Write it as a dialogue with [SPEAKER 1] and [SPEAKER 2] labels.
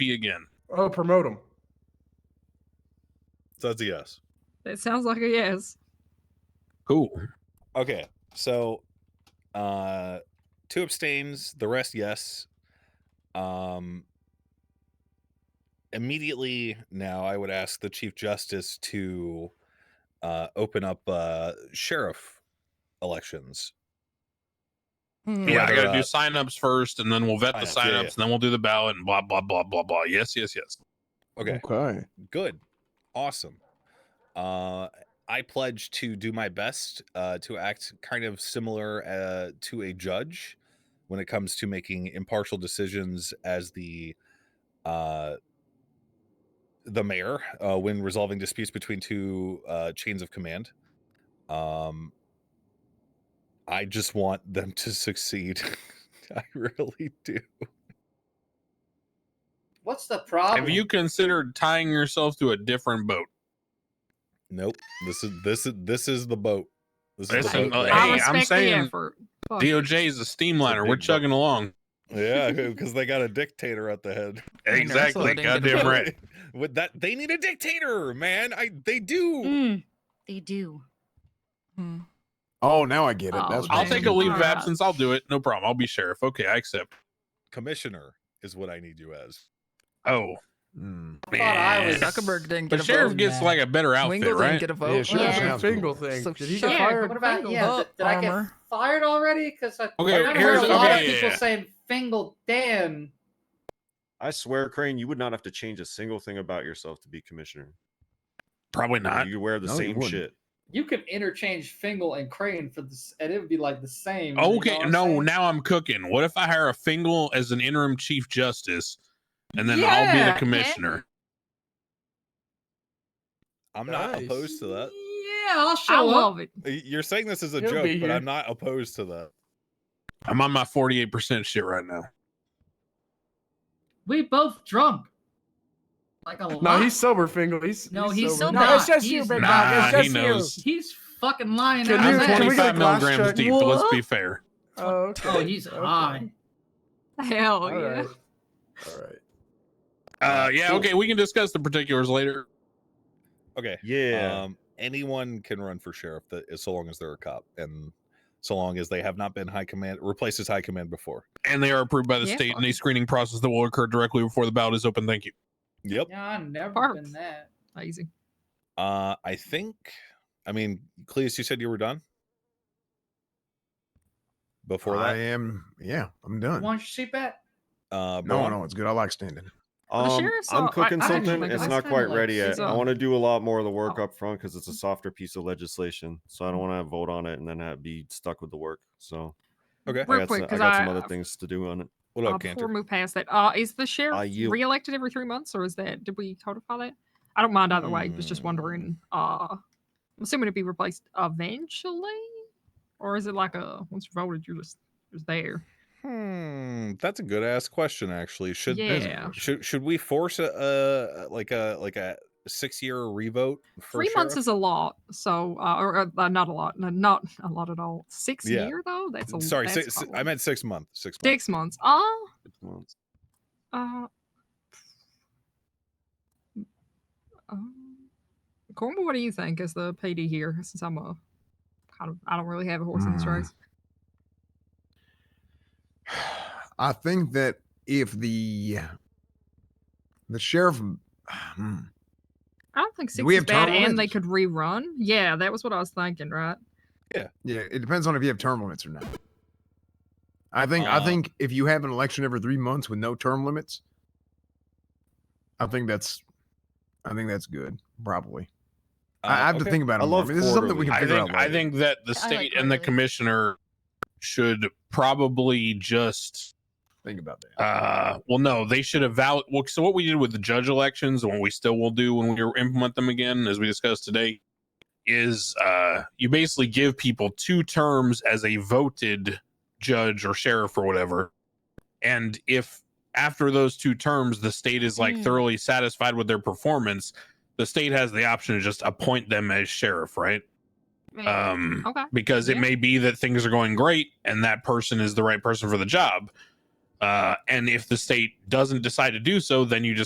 [SPEAKER 1] be again.
[SPEAKER 2] Oh, promote him.
[SPEAKER 3] So that's a yes.
[SPEAKER 4] That sounds like a yes.
[SPEAKER 1] Cool.
[SPEAKER 3] Okay. So uh two abstains, the rest yes. Um immediately now I would ask the Chief Justice to uh open up uh sheriff elections.
[SPEAKER 1] Yeah, I
[SPEAKER 3] Whether,
[SPEAKER 1] got to
[SPEAKER 3] uh,
[SPEAKER 1] do signups first, and then we'll vet the
[SPEAKER 3] signups, yeah,
[SPEAKER 1] signups,
[SPEAKER 3] yeah.
[SPEAKER 1] and then we'll do the ballot, and blah blah blah blah blah. Yes, yes, yes.
[SPEAKER 3] uh, Okay.
[SPEAKER 5] Okay.
[SPEAKER 3] good awesome uh i pledge to do my best uh to act kind of similar uh to a judge when it comes to making impartial decisions as the uh the mayor uh when resolving disputes between two uh chains of command um i just want them to succeed i really do
[SPEAKER 6] What's the problem?
[SPEAKER 1] Have you considered tying yourself to a different boat?
[SPEAKER 3] nope this is this is this is the boat this is
[SPEAKER 1] Listen,
[SPEAKER 3] the boat
[SPEAKER 1] uh,
[SPEAKER 3] that-
[SPEAKER 1] hey,
[SPEAKER 4] I
[SPEAKER 1] I'm
[SPEAKER 4] respect
[SPEAKER 1] saying
[SPEAKER 4] the effort. Fuck.
[SPEAKER 1] DOJ is a steamliner. We're
[SPEAKER 3] big boat.
[SPEAKER 1] chugging along.
[SPEAKER 3] Yeah, because they got a dictator at the head.
[SPEAKER 4] I know, that's
[SPEAKER 1] Exactly.
[SPEAKER 4] what I didn't get
[SPEAKER 1] Goddamn
[SPEAKER 4] about.
[SPEAKER 1] right.
[SPEAKER 3] With that, they need a dictator, man. I they do.
[SPEAKER 4] Mm.
[SPEAKER 7] They do.
[SPEAKER 5] Hmm. Oh, now I get it.
[SPEAKER 4] Oh,
[SPEAKER 5] That's what
[SPEAKER 1] I'll
[SPEAKER 5] you
[SPEAKER 1] take
[SPEAKER 5] need.
[SPEAKER 1] a leave of
[SPEAKER 4] Alright.
[SPEAKER 1] absence. I'll do it. No problem. I'll be sheriff. Okay, I accept.
[SPEAKER 3] Commissioner is what I need you as.
[SPEAKER 1] Oh,
[SPEAKER 5] Hmm.
[SPEAKER 6] I thought I was
[SPEAKER 4] Zuckerberg
[SPEAKER 8] didn't
[SPEAKER 1] but sheriff gets like a better outfit,
[SPEAKER 8] Wingle
[SPEAKER 1] right?
[SPEAKER 8] didn't get a vote.
[SPEAKER 5] Yeah, sure.
[SPEAKER 7] Yeah.
[SPEAKER 5] Sounds cool.
[SPEAKER 2] Fingal thing.
[SPEAKER 8] So
[SPEAKER 2] Did he
[SPEAKER 8] shut
[SPEAKER 2] get
[SPEAKER 8] up.
[SPEAKER 2] fired?
[SPEAKER 6] What about
[SPEAKER 8] Fingal.
[SPEAKER 6] yeah?
[SPEAKER 8] Oh,
[SPEAKER 6] did, did I get
[SPEAKER 8] armor.
[SPEAKER 6] fired already? Because I,
[SPEAKER 1] Okay,
[SPEAKER 6] I never
[SPEAKER 1] here's-
[SPEAKER 6] heard a lot
[SPEAKER 1] okay,
[SPEAKER 6] of
[SPEAKER 1] yeah,
[SPEAKER 6] people
[SPEAKER 1] yeah.
[SPEAKER 6] saying "fingal Dan."
[SPEAKER 9] I swear, Crane, you would not have to change a single thing about yourself to be commissioner.
[SPEAKER 1] Probably not.
[SPEAKER 9] You wear the
[SPEAKER 5] No, you
[SPEAKER 9] same
[SPEAKER 5] wouldn't.
[SPEAKER 9] shit.
[SPEAKER 6] You could interchange "fingal" and "crane" for this, and it would be like the same. you know
[SPEAKER 1] Okay,
[SPEAKER 6] what I'm
[SPEAKER 1] no,
[SPEAKER 6] saying?
[SPEAKER 1] now I'm cooking. What if I hire a Fingal as an interim chief justice and then I'll be
[SPEAKER 4] Yeah,
[SPEAKER 1] the
[SPEAKER 4] yeah.
[SPEAKER 1] commissioner?
[SPEAKER 3] I'm not
[SPEAKER 2] Nice.
[SPEAKER 3] opposed to that.
[SPEAKER 4] Yeah, I'll show I up. love it.
[SPEAKER 3] Y- You're saying this is a
[SPEAKER 2] It'll be
[SPEAKER 3] joke, but
[SPEAKER 2] you.
[SPEAKER 3] I'm not opposed to that.
[SPEAKER 1] I'm on my 48% shit right now.
[SPEAKER 6] we both drunk. Like a lot.
[SPEAKER 2] No, he's sober, Fingal. He's
[SPEAKER 4] No, he's
[SPEAKER 2] sober.
[SPEAKER 4] sober. No, it's
[SPEAKER 6] just you,
[SPEAKER 1] dog.
[SPEAKER 6] big
[SPEAKER 1] It's Nah, he just you. knows.
[SPEAKER 6] He's fucking lying.
[SPEAKER 2] Can
[SPEAKER 6] out
[SPEAKER 2] you-
[SPEAKER 1] I'm
[SPEAKER 2] we-
[SPEAKER 6] loud.
[SPEAKER 2] can we get a
[SPEAKER 1] 25
[SPEAKER 2] glass
[SPEAKER 1] milligrams
[SPEAKER 2] check?
[SPEAKER 1] deep, but let's
[SPEAKER 4] What?
[SPEAKER 1] be fair.
[SPEAKER 2] Oh, okay.
[SPEAKER 6] Oh, he's
[SPEAKER 2] okay.
[SPEAKER 6] high.
[SPEAKER 4] Hell
[SPEAKER 2] All
[SPEAKER 4] yeah.
[SPEAKER 2] right. All right.
[SPEAKER 1] Uh, yeah, okay, we can discuss the particulars later.
[SPEAKER 3] Okay.
[SPEAKER 5] Uh,
[SPEAKER 9] Yeah.
[SPEAKER 3] Um, anyone can run for sheriff that as so long as they're a cop and so long as they have not been high command replaces high command before.
[SPEAKER 1] And they are approved by the
[SPEAKER 4] Yeah.
[SPEAKER 1] state in a screening process that will occur directly before the ballot is open. Thank you.
[SPEAKER 3] Yep.
[SPEAKER 6] Yeah, I've never
[SPEAKER 4] Park.
[SPEAKER 6] been that.
[SPEAKER 4] Amazing.
[SPEAKER 3] Uh I think I mean, Cleus, you said you were done? Before
[SPEAKER 5] I
[SPEAKER 3] that?
[SPEAKER 5] am. Yeah, I'm done.
[SPEAKER 6] Want your seat back?
[SPEAKER 3] Uh
[SPEAKER 5] No,
[SPEAKER 3] Braun?
[SPEAKER 5] no, it's good. I like standing.
[SPEAKER 4] The
[SPEAKER 9] Um,
[SPEAKER 4] sheriff's
[SPEAKER 9] I'm
[SPEAKER 4] all- I-
[SPEAKER 9] cooking
[SPEAKER 4] I actually
[SPEAKER 9] something.
[SPEAKER 4] like
[SPEAKER 9] It's
[SPEAKER 4] it.
[SPEAKER 9] not
[SPEAKER 4] It's
[SPEAKER 9] quite
[SPEAKER 4] kinda
[SPEAKER 9] ready
[SPEAKER 4] like-
[SPEAKER 9] yet.
[SPEAKER 4] it's,
[SPEAKER 9] I
[SPEAKER 4] um,
[SPEAKER 9] want to do a lot more of the work
[SPEAKER 4] oh. Mm.
[SPEAKER 9] up front because it's a softer piece of legislation. So I don't want to vote on it and then have, be stuck with the work. So
[SPEAKER 3] Okay.
[SPEAKER 9] I
[SPEAKER 4] Real
[SPEAKER 9] got,
[SPEAKER 4] quick,
[SPEAKER 9] some, I
[SPEAKER 4] 'cause
[SPEAKER 9] got some
[SPEAKER 4] I-
[SPEAKER 9] other things to do on it.
[SPEAKER 3] What
[SPEAKER 4] uh,
[SPEAKER 3] up,
[SPEAKER 4] before
[SPEAKER 3] Cantor?
[SPEAKER 4] we move past that, uh, is the sheriff
[SPEAKER 9] yield.
[SPEAKER 4] reelected every three months, or is that did we codify that? I don't mind either way. Was
[SPEAKER 9] Hmm.
[SPEAKER 4] just wondering. Uh, I'm assuming it'd be replaced eventually, or is it like a once you voted, you're just just there?
[SPEAKER 3] Hmm, that's a good ass question. Actually, should
[SPEAKER 5] There's a
[SPEAKER 4] Yeah.
[SPEAKER 5] question.
[SPEAKER 3] should should we force a, a like a like a six year revote? For
[SPEAKER 4] Three months
[SPEAKER 3] sheriff?
[SPEAKER 4] is a lot, so uh, or uh, not a lot, no, not a lot at all. Six
[SPEAKER 3] Yeah. Mm,
[SPEAKER 4] year though, that's a
[SPEAKER 3] sorry.
[SPEAKER 4] that's
[SPEAKER 3] Six,
[SPEAKER 4] a
[SPEAKER 3] I
[SPEAKER 4] lot.
[SPEAKER 3] meant six months. Six months.
[SPEAKER 4] six months. Oh,
[SPEAKER 9] Six months.
[SPEAKER 4] uh, um, Cornwall, what do you think as the PD here? Since I'm a kind of, I don't really have a horse in this
[SPEAKER 5] Mm.
[SPEAKER 4] race.
[SPEAKER 5] I think that if the the sheriff, hmm,
[SPEAKER 4] I don't think
[SPEAKER 5] Do
[SPEAKER 4] six
[SPEAKER 5] we
[SPEAKER 4] is
[SPEAKER 5] have
[SPEAKER 4] bad,
[SPEAKER 5] term
[SPEAKER 4] and they
[SPEAKER 5] limits?
[SPEAKER 4] could rerun. Yeah, that was what I was thinking, right?
[SPEAKER 5] yeah, it depends on if you have term limits or not. I think
[SPEAKER 3] Uh,
[SPEAKER 5] I think if you have an election every three months with no term limits, I think that's I think that's good. Probably, I, I
[SPEAKER 3] Uh,
[SPEAKER 5] have to
[SPEAKER 3] okay.
[SPEAKER 5] think about it.
[SPEAKER 9] I
[SPEAKER 5] more.
[SPEAKER 9] love
[SPEAKER 5] mean, this is something we
[SPEAKER 9] quarterly.
[SPEAKER 5] can
[SPEAKER 9] I
[SPEAKER 1] I
[SPEAKER 5] figure
[SPEAKER 1] think
[SPEAKER 5] out.
[SPEAKER 1] I
[SPEAKER 5] later.
[SPEAKER 1] think that the
[SPEAKER 7] I like
[SPEAKER 1] state and the
[SPEAKER 7] quarterly.
[SPEAKER 1] commissioner should probably just
[SPEAKER 5] think about that.
[SPEAKER 1] Uh, well, no, they should evaluate. Well, so what we did with the judge elections, and what we still will do when we implement them again, as we discussed today, is uh, you basically give people two terms as a voted judge or sheriff or whatever, and if after those two terms the state is like
[SPEAKER 7] Mm.
[SPEAKER 1] thoroughly satisfied with their performance, the state has the option to just appoint them as sheriff, right? Um,
[SPEAKER 4] Okay.
[SPEAKER 1] because it
[SPEAKER 4] Uh-huh. Yeah.
[SPEAKER 1] may be that things are going great and that person is the right person for the job. Uh, and if the state doesn't decide to do so, then you just